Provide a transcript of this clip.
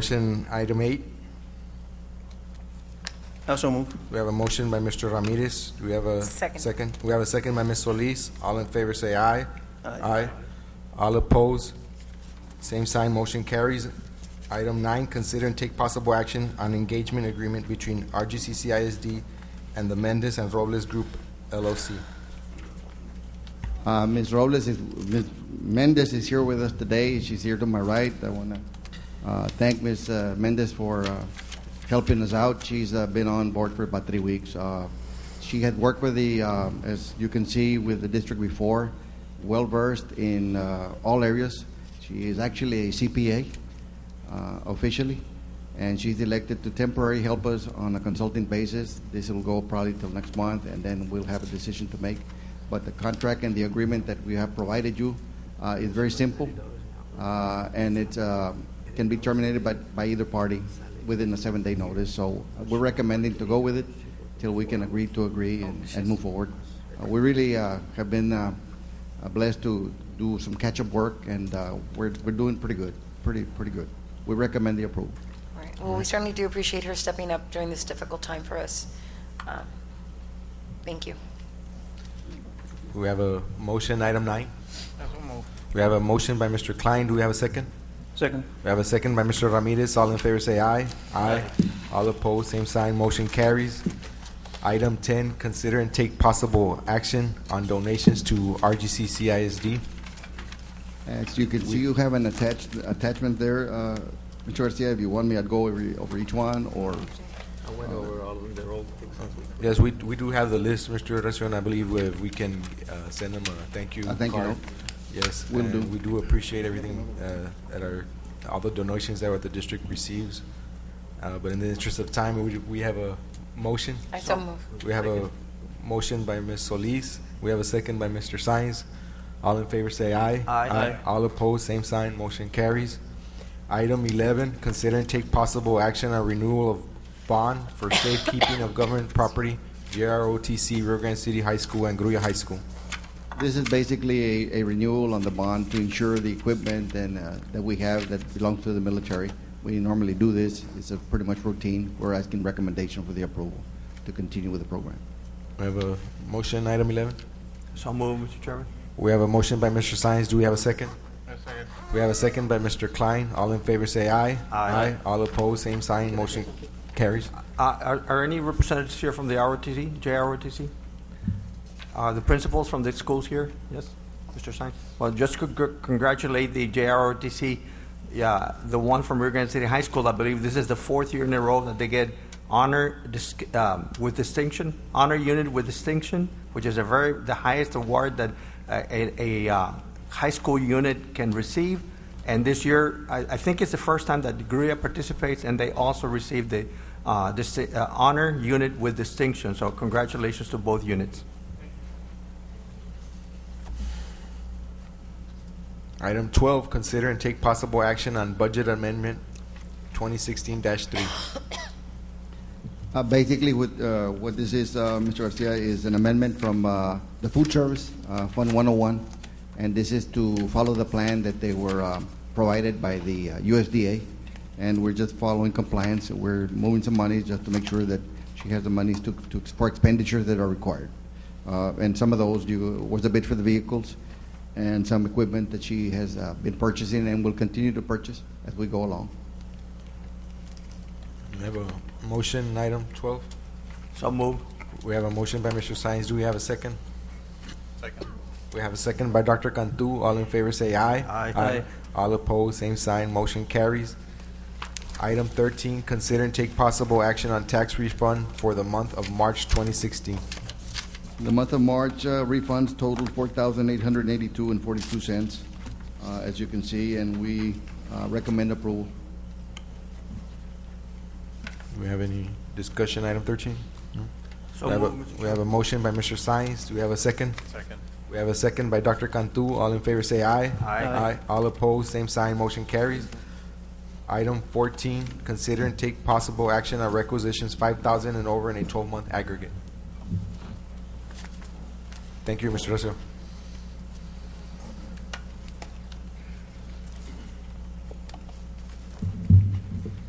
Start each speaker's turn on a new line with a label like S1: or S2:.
S1: Motion, item eight,
S2: Also move.
S1: we have a motion by Mr. Ramirez. Do we have a?
S3: Second.
S1: We have a second by Ms. Solis. All in favor say aye.
S2: Aye.
S1: All opposed? Same sign, motion carries. Item nine, consider and take possible action on engagement agreement between RGCC ISD and the Mendez and Robles Group LLC.
S4: Uh, Ms. Robles is, Ms. Mendez is here with us today. She's here to my right. I want to uh, thank Ms. Uh, Mendez for uh, helping us out. She's uh, been on board for about three weeks. Uh, she had worked with the, um as you can see, with the district before, well versed in uh, all areas. She is actually a CPA uh, officially, and she's elected to temporarily help us on a consulting basis. This will go probably till next month, and then we'll have a decision to make. But the contract and the agreement that we have provided you uh, is very simple, uh, and it uh, can be terminated by, by either party within a seven-day notice. So we're recommending to go with it till we can agree to agree and, and move forward. Uh, we really uh, have been uh, uh, blessed to do some catch-up work, and uh, we're, we're doing pretty good, pretty pretty good. We recommend the approval.
S3: All right. Well, we certainly do appreciate her stepping up during this difficult time for us. Um, Thank you.
S1: We have a motion, item nine. We have a motion by Mr. Klein. Do we have a second?
S2: Second.
S1: We have a second by Mr. Ramirez. All in favor say aye. Aye. All opposed, same sign, motion carries. Item ten, consider and take possible action on donations to RGCC ISD.
S4: As you can see, you have an attached attachment there, uh, Mr. Garcia. If you want me, I'd go over, over each one, or
S5: I went over all of them, they're all
S1: Yes, we, we do have the list, Mr. Restaurant. I believe we, we can, uh, send them a thank you
S4: A thank you
S1: card.
S4: note.
S1: Yes,
S4: Will
S1: and
S4: do.
S1: we do appreciate everything, uh, that our, all the donations that the district receives. Uh, but in the interest of time, we, we have a motion.
S3: I so move.
S1: We have a motion by Ms. Solis. We have a second by Mr. Sines. All in favor say aye.
S2: Aye. Aye.
S1: All opposed, same sign, motion carries. Item eleven, consider and take possible action on renewal of bond for safekeeping of government property, JROTC, Rio Grande City High School and Gruya High School.
S4: this is basically a, a renewal on the bond to ensure the equipment and uh, that we have that belongs to the military. We normally do this; it's a pretty much routine. We're asking recommendation for the approval to continue with the program.
S1: We have a motion, item eleven.
S2: So move, Mr. Chairman.
S1: We have a motion by Mr. Sines. Do we have a second? We have a second by Mr. Klein. All in favor say aye.
S2: Aye.
S1: All opposed, same sign, motion carries.
S6: Uh, Are are any representatives here from the ROTC, JROTC? Are Uh, the principals from the schools here? Yes, Mr. Sines? Well, just con- con- congratulate the JROTC, yeah, the one from Rio Grande City High School. I believe this is the fourth year in a row that they get honor dis- um, with distinction, honor unit with distinction, which is a very, the highest award that uh, a a, uh, high school unit can receive. And this year, I, I think it's the first time that Gruya participates, and they also received the uh, disti- uh, honor unit with distinction. So congratulations to both units.
S1: Item twelve, consider and take possible action on budget amendment twenty sixteen three.
S4: Uh, Basically, what, uh, what this is, uh, Mr. Garcia, is an amendment from uh, the Food Service, uh, Fund 101, and this is to follow the plan that they were um, provided by the uh, USDA, and we're just following compliance. We're moving some money just to make sure that she has the monies to, to for expenditures that are required. Uh, And some of those you- was a bid for the vehicles and some equipment that she has uh, been purchasing and will continue to purchase as we go along.
S1: We have a motion, item twelve.
S2: So move.
S1: We have a motion by Mr. Sines. Do we have a second? Second. We have a second by Dr. Cantu. All in favor say aye.
S2: Aye. Aye.
S1: All opposed, same sign, motion carries. Item thirteen, consider and take possible action on tax refund for the month of March twenty sixteen.
S4: The month of March uh, refunds totaled four thousand eight hundred eighty-two and forty-two cents, uh, as you can see, and we uh, recommend approval.
S1: Do we have any discussion, item thirteen?
S2: So
S1: We have a-
S2: move, Mr.
S1: we have a motion by Mr. Sines. Do we have a second?
S5: Second.
S1: We have a second by Dr. Cantu. All in favor say aye.
S2: Aye.
S1: Aye. All opposed, same sign, motion carries. Item fourteen, consider and take possible action on requisitions five thousand and over in a twelve-month aggregate. Thank you, Mr. Russell.